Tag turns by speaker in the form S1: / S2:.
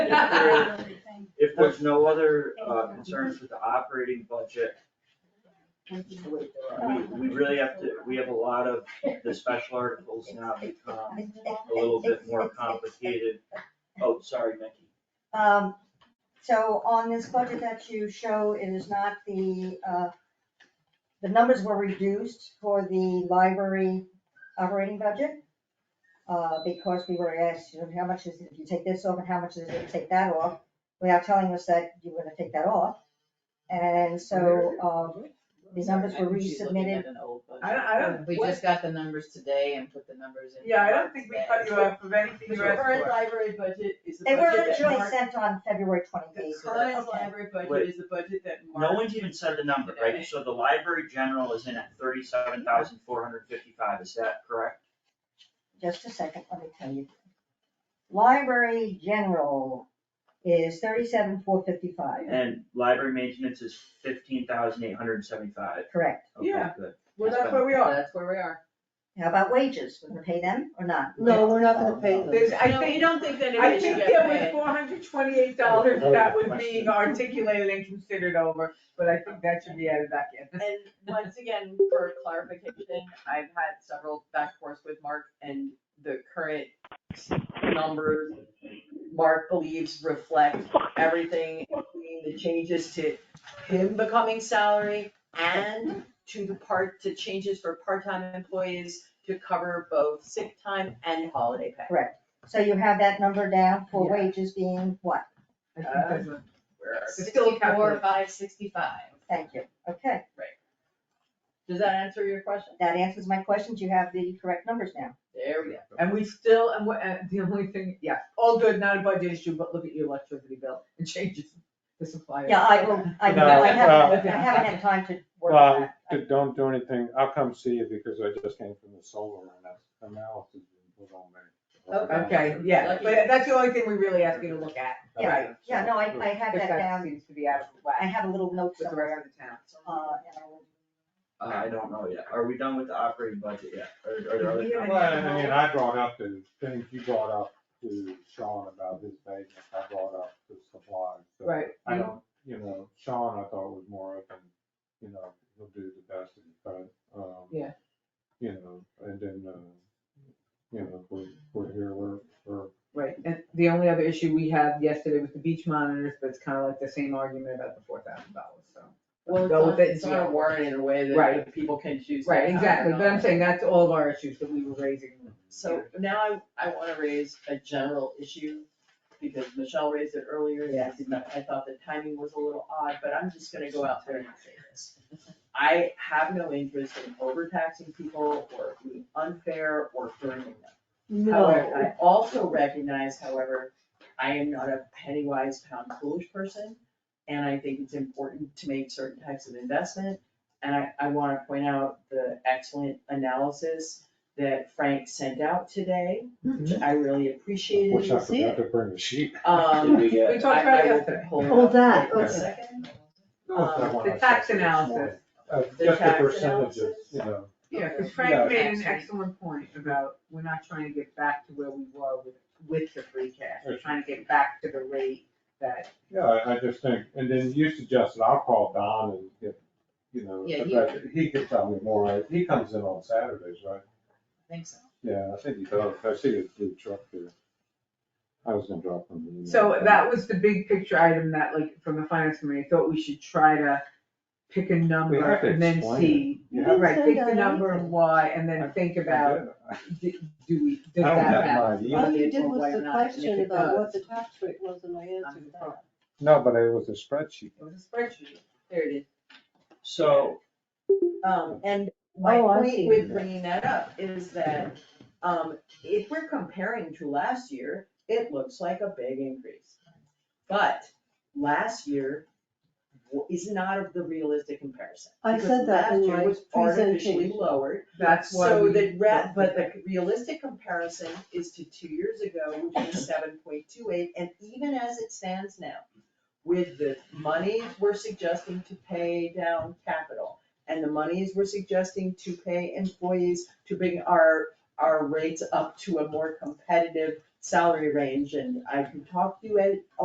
S1: there, if there's no other uh, concerns with the operating budget, we, we really have to, we have a lot of, the special articles now become a little bit more complicated. Oh, sorry, Mickey.
S2: Um, so on this budget that you show, it is not the, uh, the numbers were reduced for the library operating budget. Uh, because we were asked, you know, how much is, if you take this off and how much is it, to take that off, without telling us that you were gonna take that off. And so, um, these numbers were
S3: I
S2: resubmitted,
S3: don't, I don't.
S4: Um, We
S3: what-
S4: just got the numbers today and put the numbers in.
S3: Yeah, I don't think we cut you off of anything
S5: The
S3: you asked
S5: current
S3: for.
S5: library budget is the
S2: they were
S5: budget that
S2: originally
S5: Mark,
S2: sent on February twenty
S5: the
S2: eighth.
S5: current library budget
S1: Wait.
S5: is the budget that Mark.
S1: No one's even said the number, right? So the library general is in at thirty-seven thousand four hundred fifty-five, is that correct?
S2: just a second, let me tell you. Library general is thirty-seven, four fifty-five,
S1: And library maintenance is fifteen thousand eight hundred seventy-five.
S2: correct.
S1: Okay,
S5: Yeah.
S1: good.
S3: Well, that's where we are.
S4: That's where we are.
S2: How about wages, we're gonna pay them or not?
S6: No, we're not gonna pay them.
S3: There's, I
S4: No,
S3: think,
S4: You don't think that
S3: I
S4: it should
S3: think
S4: get
S3: there was
S4: paid.
S3: four hundred twenty-eight dollars that was being articulated and considered over, but I think that should be added back in.
S5: And once again, for clarification, I've had several back and forth with Mark and the current numbers Mark believes reflect everything, including the changes to him becoming salary and to the part, to changes for part-time employees to cover both sick time and holiday pay.
S2: So you have that number down for
S3: Yeah.
S2: wages being what?
S3: I think
S5: Uh,
S3: that's what-
S5: Where-
S3: It's still
S4: Sixty-four,
S3: calculated.
S4: five, sixty-five.
S2: Thank you, okay,
S5: Does that answer your question?
S2: that answers my questions, you have the correct numbers now.
S5: There we go.
S3: And we still, and what, and the only thing, yeah, all good, not a budget issue, but look at your electricity bill and changes the supplier.
S2: Yeah, I will, I
S6: No,
S2: I haven't, I
S3: uh,
S2: haven't had time to work
S6: Well,
S2: on that.
S6: d- Don't do anything, I'll come see you because I just came from the solar and that's analysis was on me.
S3: Oh, Okay, yeah, but that's the only thing we really ask you to look at.
S2: Yeah,
S3: Right.
S2: Yeah, no, I, I have
S3: If
S2: that
S3: that
S2: down,
S3: seems to be out of
S2: I
S3: whack
S2: have a little note
S3: with the rest
S2: somewhere,
S3: of the town.
S2: uh, and I will.
S1: Uh, I don't know yet. Are we done with the operating budget yet? Are, are there other?
S6: Well, I mean, I brought up the things you brought up to Sean about his maintenance, I brought up the supplies. so
S3: Right.
S6: I don't, you know, Sean, I thought was more open, you know, he'll do the best he can, um.
S3: Yeah.
S6: You know, and then, uh, you know, we're, we're here, we're, we're
S3: Right, and the only other issue we had yesterday was the beach monitors, but it's kind of like the same argument about the four thousand dollars, so.
S4: Well, it's
S3: Go
S4: on,
S3: with it
S4: it's
S3: and
S4: on
S3: see.
S4: a warrant in a way
S3: Right.
S4: that people can choose. to
S3: Right,
S4: have it
S3: exactly,
S4: on.
S3: but I'm saying that's all of our issues that we were raising.
S4: So now I, I wanna raise a general issue, because Michelle raised it earlier, and I did not- I thought the timing was a little odd, but I'm just gonna go out there and say this. I have no interest in overtaxing people or being unfair or burdening them. However, I also recognize, however, I am not a penny wise pound foolish person. And I think it's important to make certain types of investment. And I, I wanna point out the excellent analysis that Frank sent out today, which I really appreciated.
S6: Wish Mm-hmm. I
S7: see
S6: forgot to bring the sheet.
S4: Um,
S1: Did we get-
S3: We talked about it yesterday,
S7: Oh, that,
S4: Hold on, wait a
S6: okay.
S4: second.
S6: That one
S3: um, the
S6: I
S3: tax
S6: saw this morning.
S3: analysis.
S6: Uh,
S4: The
S6: just the
S4: tax
S6: percentages,
S4: analysis?
S6: you know,
S3: Yeah, because
S6: Yeah.
S3: Frank made an excellent point about, we're not trying to get back to where we were with, with the free cash, we're trying to get back to the rate that.
S6: yeah, I, I just think, and then you suggested I'll call Don and get, you know,
S4: Yeah, he-
S6: but he could tell me more, right? he comes in on Saturdays, right?
S4: I think so.
S6: Yeah, I think he does, I see his blue truck here. I was gonna drop him. an email.
S3: So that was the big picture item that like, from the finance committee, thought we should try to pick a number
S6: We have to
S3: and then
S6: explain it.
S3: see.
S6: You
S7: have to-
S3: Right, pick the
S7: Send out
S3: number and
S7: anything.
S3: why, and then think about,
S6: I
S3: d- do we, does
S6: don't
S3: that matter?
S6: have my email.
S7: All you did
S3: Or
S7: was
S3: whether or
S7: the
S3: not it
S7: question about what the
S3: does.
S7: tax rate was and I answered that.
S6: No, but it was a spreadsheet.
S3: It was a spreadsheet.
S4: There it is.
S1: So,
S4: Um, and my
S7: Oh, I
S4: point
S7: see.
S4: with bringing that up is that, um, if we're comparing to last year, it looks like a big increase. But last year w- is not of the realistic comparison.
S7: I
S4: because
S7: said that in
S4: last year
S7: my
S4: was Artificially
S7: presentation.
S4: lowered,
S3: That's why
S4: so
S3: we-
S4: the re- but the realistic comparison is to two years ago, which was seven point two eight, and even as it stands now, with the monies we're suggesting to pay down capital, and the monies we're suggesting to pay employees to bring our, our rates up to a more competitive salary range, and I can talk to you at